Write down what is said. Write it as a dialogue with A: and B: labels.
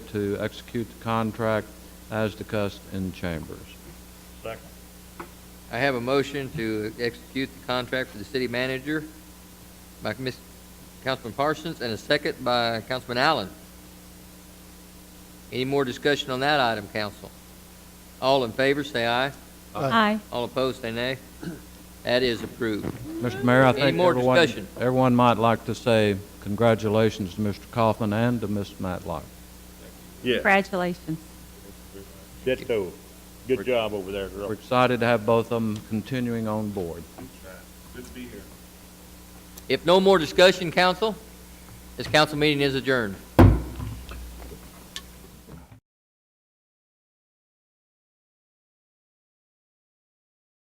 A: to execute the contract as discussed in chambers.
B: Second.
C: I have a motion to execute the contract for the city manager by Ms. Councilman Parsons and a second by Councilman Allen. Any more discussion on that item, council? All in favor, say aye.
D: Aye.
C: All opposed, say nay. That is approved.
A: Mr. Mayor, I
C: Any
A: think
C: more
A: everyone,
C: discussion?
A: everyone might like to say congratulations to Mr. Kaufman and to Ms. Matlock.
B: Yeah,
D: Congratulations.
B: that's cool. Good job over there,
A: We're
B: girl.
A: excited to have both of them continuing on board.
C: If no more discussion, council, this council meeting is adjourned.